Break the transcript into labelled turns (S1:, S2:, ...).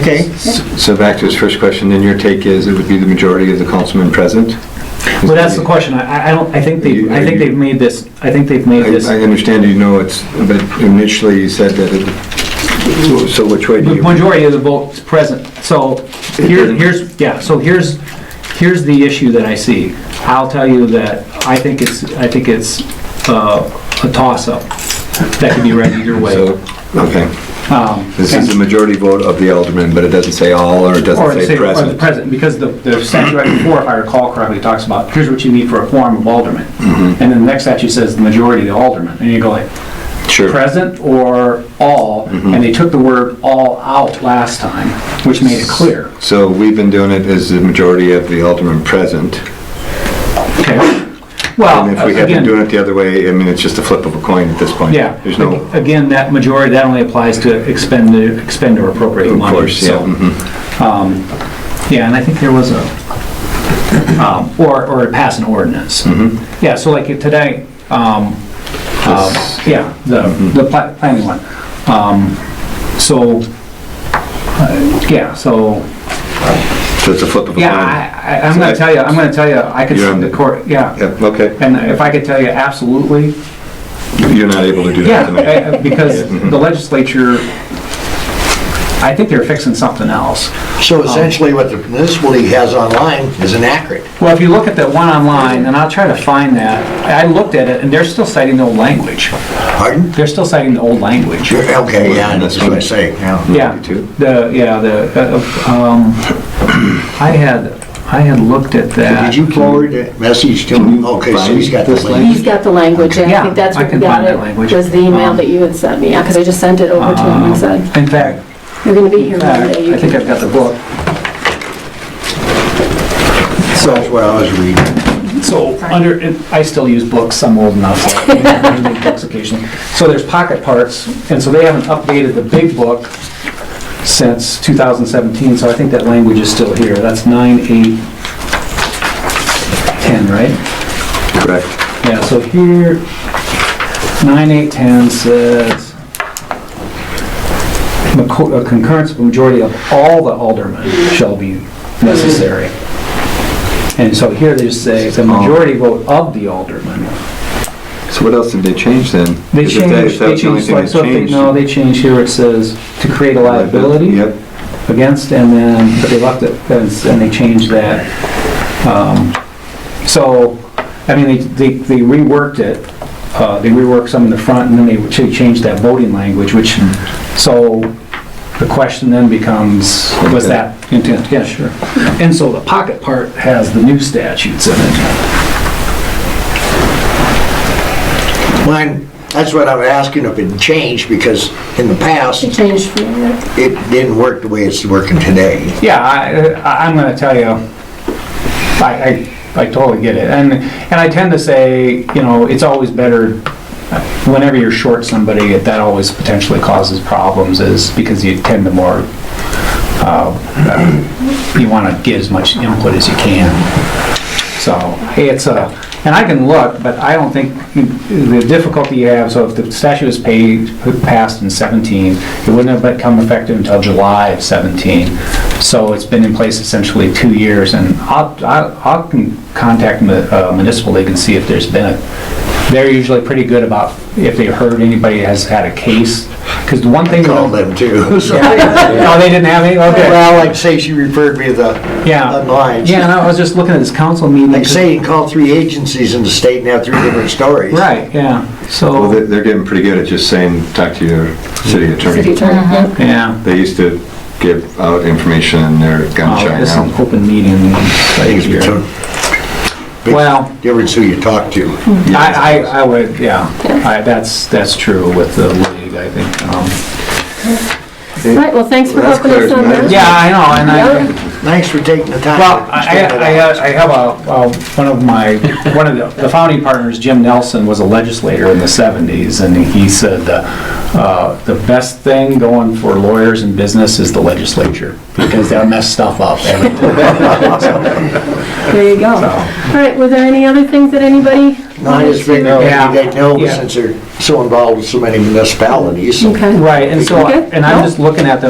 S1: Okay,
S2: So back to his first question, then your take is it would be the majority of the councilmen present?
S3: Well, that's the question. I, I don't, I think they, I think they've made this, I think they've made
S2: I
S3: this.
S2: I understand you know it's, but initially you said that it, so which way do
S3: The
S2: you?
S3: majority of the vote is present, so here, here's, yeah, so here's, here's the issue that I see. I'll tell you that I think it's, I think it's uh, a toss-up that could be read either way.
S2: So, okay.
S3: Um,
S2: This is the majority vote of the aldermen, but it doesn't say all or it
S3: Or
S2: doesn't
S3: say,
S2: say
S3: or the
S2: present.
S3: president, because the, the statute right before, if I recall correctly, talks about, here's what you need for a quorum of aldermen. And
S2: Mm-hmm.
S3: then the next statute says the majority of the aldermen, and you go like,
S2: Sure.
S3: present or all,
S2: Mm-hmm.
S3: and they took the word all out last time, which made it clear.
S2: So we've been doing it as the majority of the aldermen present.
S3: Okay.
S2: And if
S3: Well,
S2: we had been doing
S3: again,
S2: it the other way, I mean, it's just a flip of a coin at this point.
S3: yeah,
S2: There's no, of
S3: again, that majority, that only applies to expend, expend or appropriate money.
S2: course, yeah.
S3: so,
S2: mhm.
S3: um, Yeah, and I think there was a, um, or, or pass an ordinance.
S2: Mm-hmm.
S3: Yeah, so like today, um, um,
S2: This-
S3: yeah, the,
S2: Mm-hmm.
S3: the pla- planning one. Um, So, uh, yeah, so
S2: So it's a flip of a coin.
S3: Yeah, I, I- I'm gonna tell you, I'm gonna tell you, I could
S2: You're
S3: see
S2: on
S3: the
S2: the-
S3: court, yeah.
S2: Yeah, okay.
S3: And if I could tell you absolutely,
S2: You're not able to do that
S3: yeah,
S2: tonight.
S3: eh, eh, because the legislature, I think they're fixing something else.
S1: so essentially what the municipal league has online is inaccurate.
S3: Well, if you look at that one online, and I'll try to find that, I looked at it, and they're still citing the old language.
S1: Pardon?
S3: They're still citing the old language.
S1: Sure, Okay, yeah, that's what I say, yeah.
S3: Yeah,
S2: Too.
S3: the, yeah, the, uh, um, I had, I had looked at that.
S1: Did you forward that message to him? Okay, so he's got the
S2: This
S1: link.
S4: He's got the language, and
S3: Yeah,
S4: I think that's
S3: I
S4: what we
S3: can
S4: got
S3: find that language.
S4: it, was the email
S3: Um,
S4: that you had sent me, because I just sent it over to him and said,
S3: In fact,
S4: you're gonna be here
S3: I
S4: Monday. you
S3: I think
S4: can-"
S3: I've got the book. So,
S1: That's what I was reading.
S3: So, under, and I still use books, I'm old enough. so I read books occasionally. So there's pocket parts, and so they haven't updated the big book since 2017, so I think that language is still here. That's 9, 8, 10, right?
S2: Correct.
S3: Yeah, so here, 9, 8, 10 says, "Maco- uh, concurrence of a majority of all the aldermen shall be necessary. And so here they say, the majority vote of the aldermen.
S2: So what else did they change then?
S3: They
S2: Because if that-
S3: changed,
S2: if
S3: they
S2: that's the only
S3: changed,
S2: thing
S3: like, so if they, no, they changed here, it says to create a liability
S2: Yep.
S3: against, and then, but they left it, and s- and they changed that. Um, So, I mean, they- they they reworked it, uh, they reworked some in the front, and then they ch- changed that voting language, which, so the question then becomes, was that intent? Yeah, sure. And so the pocket part has the new statutes in it.
S1: Mine, that's what I'm asking if it changed, because in the past,
S4: It changed from there.
S1: it didn't work the way it's working today.
S3: Yeah, I, I- I'm gonna tell you, I, I, I totally get it, and, and I tend to say, you know, it's always better, whenever you're short somebody, that always potentially causes problems, is because you tend to more, uh, you wanna get as much input as you can. So, hey, it's a, and I can look, but I don't think, the difficulty you have, so if the statute was paid, passed in 17, it wouldn't have become effective until July of 17. So it's been in place essentially two years, and I'll, I'll I'll can contact mu- uh, municipal league and see if there's been a, they're usually pretty good about if they heard anybody has had a case, because the one thing. we
S1: All
S3: don't-
S1: them too. So-
S3: No, they didn't have any, okay.
S1: Well, like say she referred me to the
S3: Yeah.
S1: online.
S3: Yeah, and I was just looking at this council meeting.
S1: Like say you call three agencies in the state and have three different stories.
S3: Right, yeah, so.
S2: Well, they're, they're getting pretty good at just saying, talk to your city
S4: City
S2: attorney.
S4: attorney, yeah.
S3: Yeah.
S2: They used to give out information and they're gun
S3: Oh,
S2: shy
S3: This is an
S2: now.
S3: open meeting.
S1: I think it's between,
S3: Well,
S1: difference who you talk to.
S3: I, I, I would, yeah, I, that's, that's true with the league, I think. um,
S4: Right, well, thanks for
S2: That's
S4: helping us
S2: clear,
S4: on
S2: isn't
S4: that.
S2: it?
S3: Yeah, I know, and I.
S4: Yeah.
S1: Thanks for taking the time.
S3: Well,
S1: to
S3: I,
S1: spend it
S3: I
S1: out.
S3: I have a, uh, one of my, one of the- the founding partners, Jim Nelson, was a legislator in the 70s, and he said, uh, uh, "The best thing going for lawyers and business is the legislature, because they'll mess stuff up every time."
S4: There you go. All right, were there any other things that anybody
S1: No, I just figured
S3: Yeah.
S1: maybe they'd know
S3: Yeah.
S1: since they're so involved with so many municipalities. so-
S4: Okay.
S3: Right, and so,
S4: Okay.
S3: and I'm just looking at the